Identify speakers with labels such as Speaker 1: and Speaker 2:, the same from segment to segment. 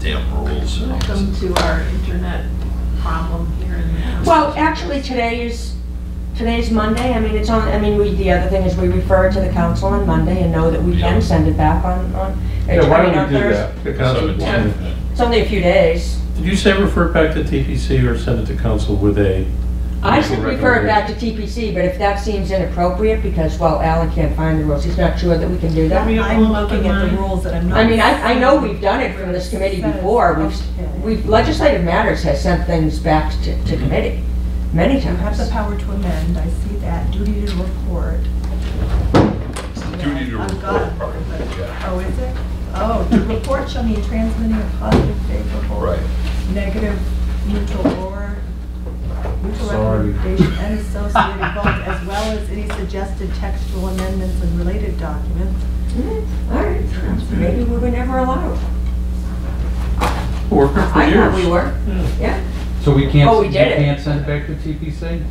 Speaker 1: rules. and all this.
Speaker 2: Welcome to our internet problem here in Madison.
Speaker 3: Well, actually, today is, today's Monday, I mean, it's on, I mean, we, the other thing is we refer it to the council on Monday and know that we
Speaker 1: Yeah.
Speaker 3: can send it back on, on.
Speaker 4: Yeah, why
Speaker 3: I mean, on
Speaker 4: don't we do
Speaker 3: Thurs-
Speaker 4: that? The council-
Speaker 1: Seventeenth.
Speaker 3: It's only a few days.
Speaker 1: Did you say refer it back to TPC or send it to council with a?
Speaker 3: I
Speaker 1: Council
Speaker 3: should refer it back to TPC, but if that seems inappropriate, because, well, Alan can't find the rules, he's not sure that we can do that.
Speaker 2: we have
Speaker 5: I'm
Speaker 2: all open
Speaker 5: looking at the
Speaker 2: mind?
Speaker 5: rules that I'm not.
Speaker 3: I mean, I, I know we've done it from this committee before, we've, we've, legislative matters has sent things back to, to committee, many
Speaker 5: You have the
Speaker 3: times.
Speaker 5: power to amend, I see that, duty to report.
Speaker 4: It's the duty to
Speaker 5: I've
Speaker 4: report
Speaker 5: got-
Speaker 4: part of it, yeah.
Speaker 5: Oh, is it? Oh, the report shall mean transmitting a positive, favorable.
Speaker 4: Right.
Speaker 5: Negative, neutral, or neutral recommendation and associated votes, as well as any suggested textual amendments and related documents.
Speaker 3: All right, maybe we were never allowed.
Speaker 1: Worker for
Speaker 3: I
Speaker 1: years.
Speaker 3: thought we were, yeah.
Speaker 6: So we can't,
Speaker 3: Oh, we
Speaker 6: you
Speaker 3: did it.
Speaker 6: can't send it back to TPC?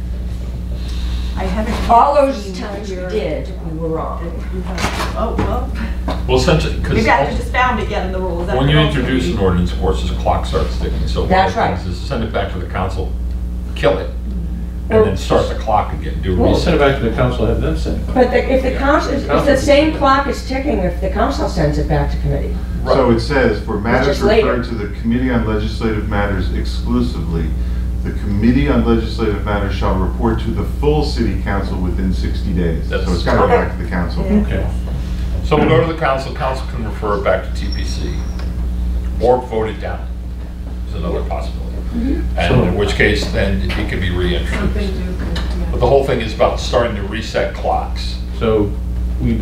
Speaker 5: I haven't.
Speaker 3: All those
Speaker 5: seen
Speaker 3: times we
Speaker 5: your-
Speaker 3: did, we were wrong.
Speaker 5: Oh, well,
Speaker 4: Well, since, because
Speaker 5: you guys just found it again in the rules.
Speaker 4: when you introduce an ordinance, of course, this clock starts ticking, so. one of
Speaker 3: That's
Speaker 4: the things
Speaker 3: right.
Speaker 4: is Send it back to the council, kill it,
Speaker 3: Well-
Speaker 4: and then start the clock again, do a
Speaker 1: We'll send it
Speaker 4: reset.
Speaker 1: back to the council, have them send it back.
Speaker 3: But the- if the council, if the same clock is ticking, if the council sends it back to committee.
Speaker 7: So it says, for matters
Speaker 3: just later.
Speaker 7: referred to the Committee on Legislative Matters exclusively, the Committee on Legislative Matters shall report to the full city council within 60 days. So
Speaker 4: That's-
Speaker 7: it's got to go back to the council.
Speaker 1: Okay.
Speaker 4: So we'll go to the council, council can refer it back to TPC, or vote it down, is another possibility. And in which case, then it can be
Speaker 2: Something
Speaker 4: reintroduced.
Speaker 2: to, yeah.
Speaker 4: But the whole thing is about starting to reset clocks.
Speaker 1: So we,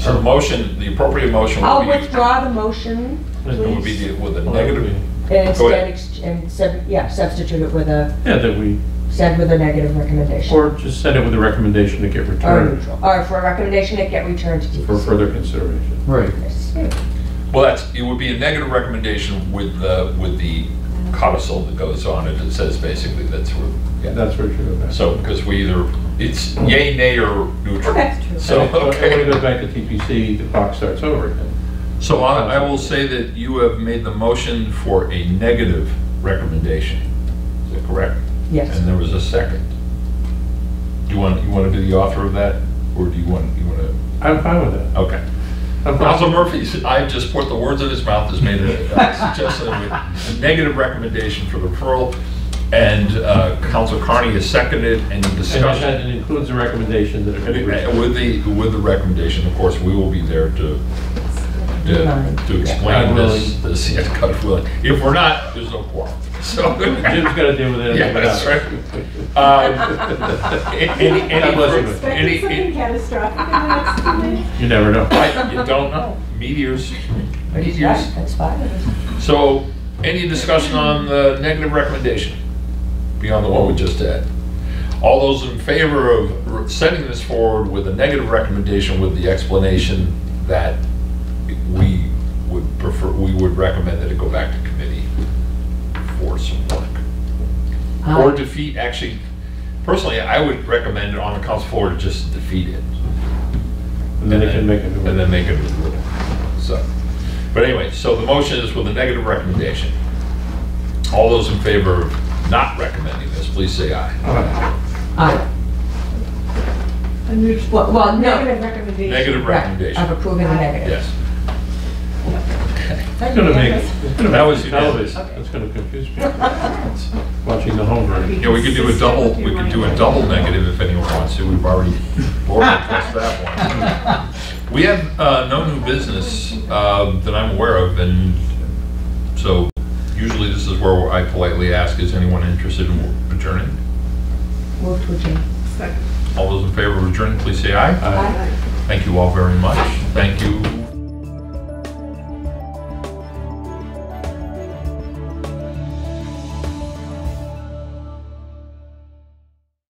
Speaker 4: So the motion, the appropriate motion would
Speaker 3: I'll
Speaker 4: be.
Speaker 3: withdraw the motion,
Speaker 4: It would be
Speaker 3: please.
Speaker 4: the- with a negative,
Speaker 3: And
Speaker 4: Go
Speaker 3: instead,
Speaker 4: ahead.
Speaker 3: ex- and, sub- yeah, substitute it with a,
Speaker 1: yeah, that we,
Speaker 3: send with a negative recommendation.
Speaker 1: or just send it with a recommendation to get
Speaker 3: Or
Speaker 1: returned
Speaker 3: neutral, or for a recommendation that get returned to
Speaker 1: for
Speaker 3: TPC.
Speaker 1: further consideration.
Speaker 6: Right.
Speaker 4: well, that's, it would be a negative recommendation with the, with the codicil that goes on it that says basically that's where,
Speaker 1: Yeah, that's where it should go back.
Speaker 4: so, because we either, it's yay, nay, or neutral.
Speaker 3: Okay.
Speaker 4: So,
Speaker 1: And if- When it
Speaker 4: okay,
Speaker 1: goes back to TPC, the clock starts over again.
Speaker 4: so I I will say that you have made the motion for a negative recommendation, is that correct?
Speaker 3: Yes.
Speaker 4: And there was a second. Do you want, you want to be the author of that, or do you want, you want to,
Speaker 1: I'm fine with that.
Speaker 4: okay.
Speaker 1: I'm fine.
Speaker 4: Council Murphy, I just put the words in his mouth, has made a a suggestion with a negative recommendation for the referral, and uh, Council Carney has seconded and
Speaker 1: And that
Speaker 4: discussion.
Speaker 1: and includes the recommendation that it could be returned.
Speaker 4: With the, with the recommendation, of course, we will be there to, to to explain
Speaker 1: God
Speaker 4: this,
Speaker 1: willing.
Speaker 4: this, yes, God willing. If we're not, there's no quorum, so. um,
Speaker 1: Jim's got to deal with it.
Speaker 4: Yeah, that's right. Um, Any, any,
Speaker 1: God bless you.
Speaker 4: fur- any,
Speaker 2: Something
Speaker 4: any-
Speaker 2: catastrophic in the next two minutes.
Speaker 1: You never know.
Speaker 4: I, you don't know, meteors, meteors.
Speaker 3: That's fine.
Speaker 4: So, any discussion on the negative recommendation beyond the one we just had? All those in favor of r- sending this forward with a negative recommendation with the explanation that we would prefer, we would recommend that it go back to committee for some work? Or
Speaker 3: Aye.
Speaker 4: defeat, actually, personally, I would recommend it on the council floor to just defeat it
Speaker 1: And then it can make a new
Speaker 4: and
Speaker 1: one.
Speaker 4: then make it a rule. So, but anyway, so the motion is with a negative recommendation. All those in favor of not recommending this, please say aye.
Speaker 3: Aye.
Speaker 2: A neutral-
Speaker 3: Well- well, no.
Speaker 2: Negative recommendation.
Speaker 4: Negative
Speaker 3: Of
Speaker 4: recommendation,
Speaker 3: approving the negative.
Speaker 4: yes.
Speaker 1: It's going to make, it's going
Speaker 4: That
Speaker 1: to
Speaker 4: was
Speaker 1: make
Speaker 4: unanimous.
Speaker 1: television. It's going to confuse people. Watching the home version.
Speaker 4: Yeah, we could do a double, we could do a double negative if anyone wants to, we've already already addressed that one. We have uh, no new business uh, that I'm aware of, and so usually this is where I politely ask, is anyone interested in returning?
Speaker 3: Move to adjourn.
Speaker 2: Second.
Speaker 4: All those in favor of adjourning, please say aye.
Speaker 1: Uh,
Speaker 3: Aye.
Speaker 4: Thank you all very much. Thank